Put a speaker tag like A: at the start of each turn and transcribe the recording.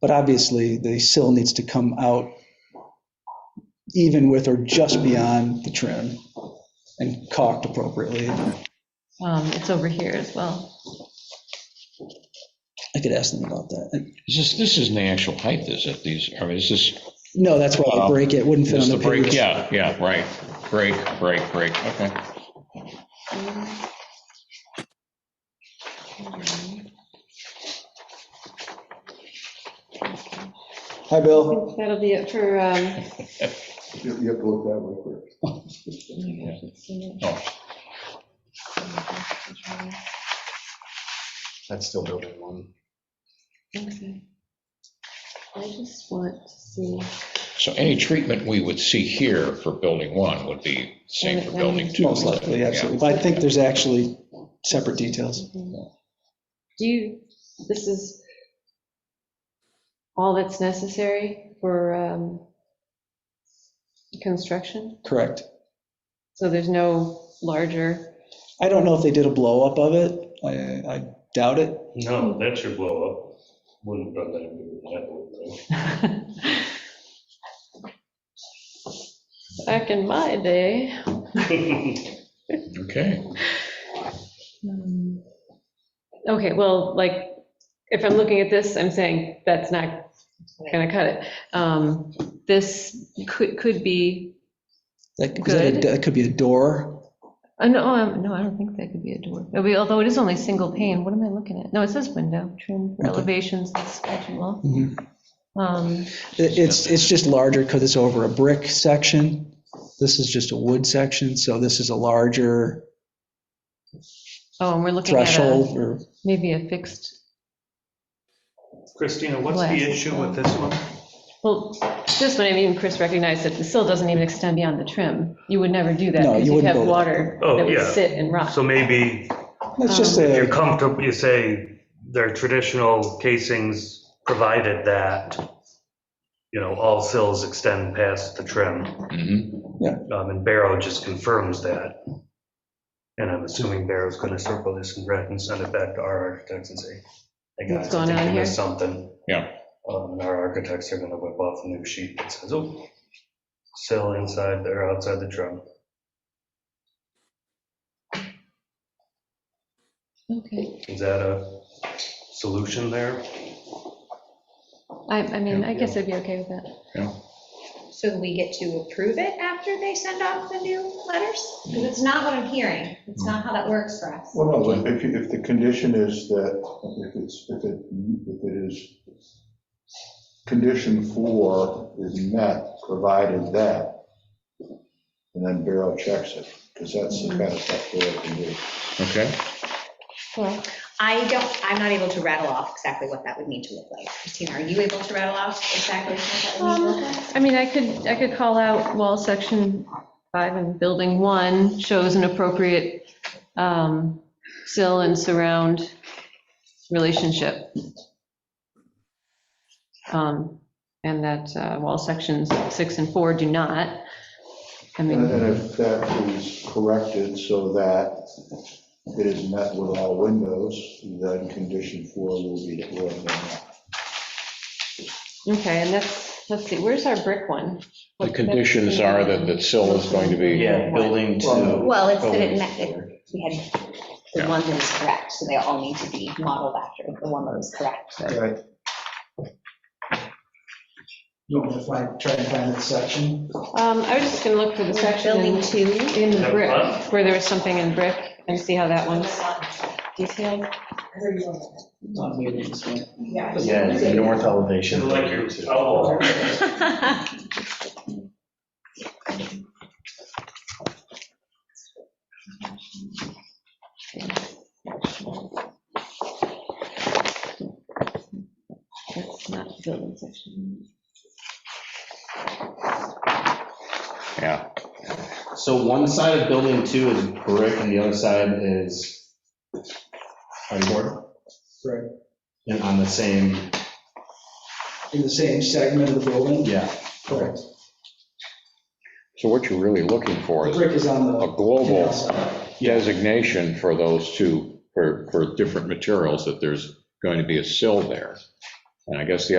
A: But obviously, the sill needs to come out even with or just beyond the trim and caulked appropriately.
B: Um, It's over here as well.
A: I could ask them about that. And-
C: Is this, this isn't the actual height, is it? These, or is this,
A: No, that's why the break, it wouldn't fit
C: is
A: on
C: the
A: the
C: break?
A: pavers.
C: Yeah, yeah, right. Break, break, break, okay.
A: Hi, Bill.
B: That'll be it for, um,
D: You you have to look that way first.
C: Oh,
E: That's still building one.
B: okay. I just want to see.
C: So any treatment we would see here for building one would be same for building two.
A: Most likely, absolutely. But I think there's actually separate details.
B: Do you, this is all that's necessary for um, construction?
A: Correct.
B: So there's no larger,
A: I don't know if they did a blow up of it. I, I doubt it.
F: No, that's your blow up. Wouldn't run that into that one,
B: back in my day.
F: though.
C: Okay,
B: um, Okay, well, like, if I'm looking at this, I'm saying that's not gonna cut it. Um, This could, could be
A: That, 'cause that-
B: Good.
A: that could be a door.
B: Uh, no, um, no, I don't think that could be a door. It'll be- Although it is only single pane, what am I looking at? No, it says window, trim for
A: Okay.
B: elevations, that's statute law.
A: Mhm.
B: Um,
A: It- It's, it's just larger because it's over a brick section. This is just a wood section, so this is a larger
B: Oh, and we're looking at a,
A: threshold or
B: maybe a fixed,
F: Christina, what's
B: Glass.
F: the issue with this one?
B: well, this one, I mean, Chris recognized that the sill doesn't even extend beyond the trim. You would never do that.
A: No,
B: because
A: you
B: you'd
A: wouldn't
B: have
A: go-
B: water
F: Oh,
B: that would
F: yeah.
B: sit and rot.
F: So maybe
A: it's just
F: if you're
A: a,
F: comfortable, you say their traditional casings provided that, you know, all sills extend past the trim.
C: mhm,
F: Um, And Barrow just confirms that. And I'm assuming Barrow's going to circle this in red and send it back to our architects and say, hey
B: What's
F: guys, I
B: going
F: think
B: on
F: we
B: here?
F: missed something.
C: Yeah.
F: Um, And our architects are going to whip off a new sheet that says, oh, sill inside or outside the drum.
B: Okay,
F: Is that a solution there?
B: I, I mean, I
F: Yeah,
B: guess I'd be okay with that.
G: So we get to approve it after they send off the new letters? Because it's not what I'm hearing. It's not how that works for us.
D: Well, no, but if, you- if the condition is that, if it's, if it, if it is, condition four is met, provided that, and then Barrow checks it, because that's the kind of stuff Barrow can do.
C: okay.
B: Well,
G: I don't, I'm not able to rattle off exactly what that would need to look like. Christina, are you able to rattle off exactly what that would need to look like?
B: I mean, I could, I could call out wall section five and building one shows an appropriate um, sill and surround relationship. Um, And that uh, wall sections six and four do not. I
D: And
B: mean,
D: and if that is corrected so that it is met with all windows, then condition four will be, will be met.
B: okay, and that's, let's see, where's our brick one?
C: Uh-huh. The conditions are that the sill is going to be.
B: Yeah,
E: building
D: two.
G: Um, Well, it's that it met, it- we had the one that was correct, so they all need to be modeled after the one that was correct.
D: Right.
A: you want to find, try and find that section?
B: Um, I was just gonna look for the section
G: Building
B: in
G: two.
B: in the brick, where there was something in brick, and see how that one's detailed.
A: Not
B: Um,
A: maybe this one.
E: Yeah, the north elevation.
B: That's not the building section.
C: Yeah,
E: So one side of building two is brick and the other side is hardboard?
A: Right.
E: And on the same,
A: In the same segment of the building?
E: yeah,
A: Correct.
C: so what you're really looking for
A: The
C: is
A: brick is on
C: a
A: the.
C: global
A: outside.
C: designation for those two, for, for different materials, that there's going to be a sill there. And I guess the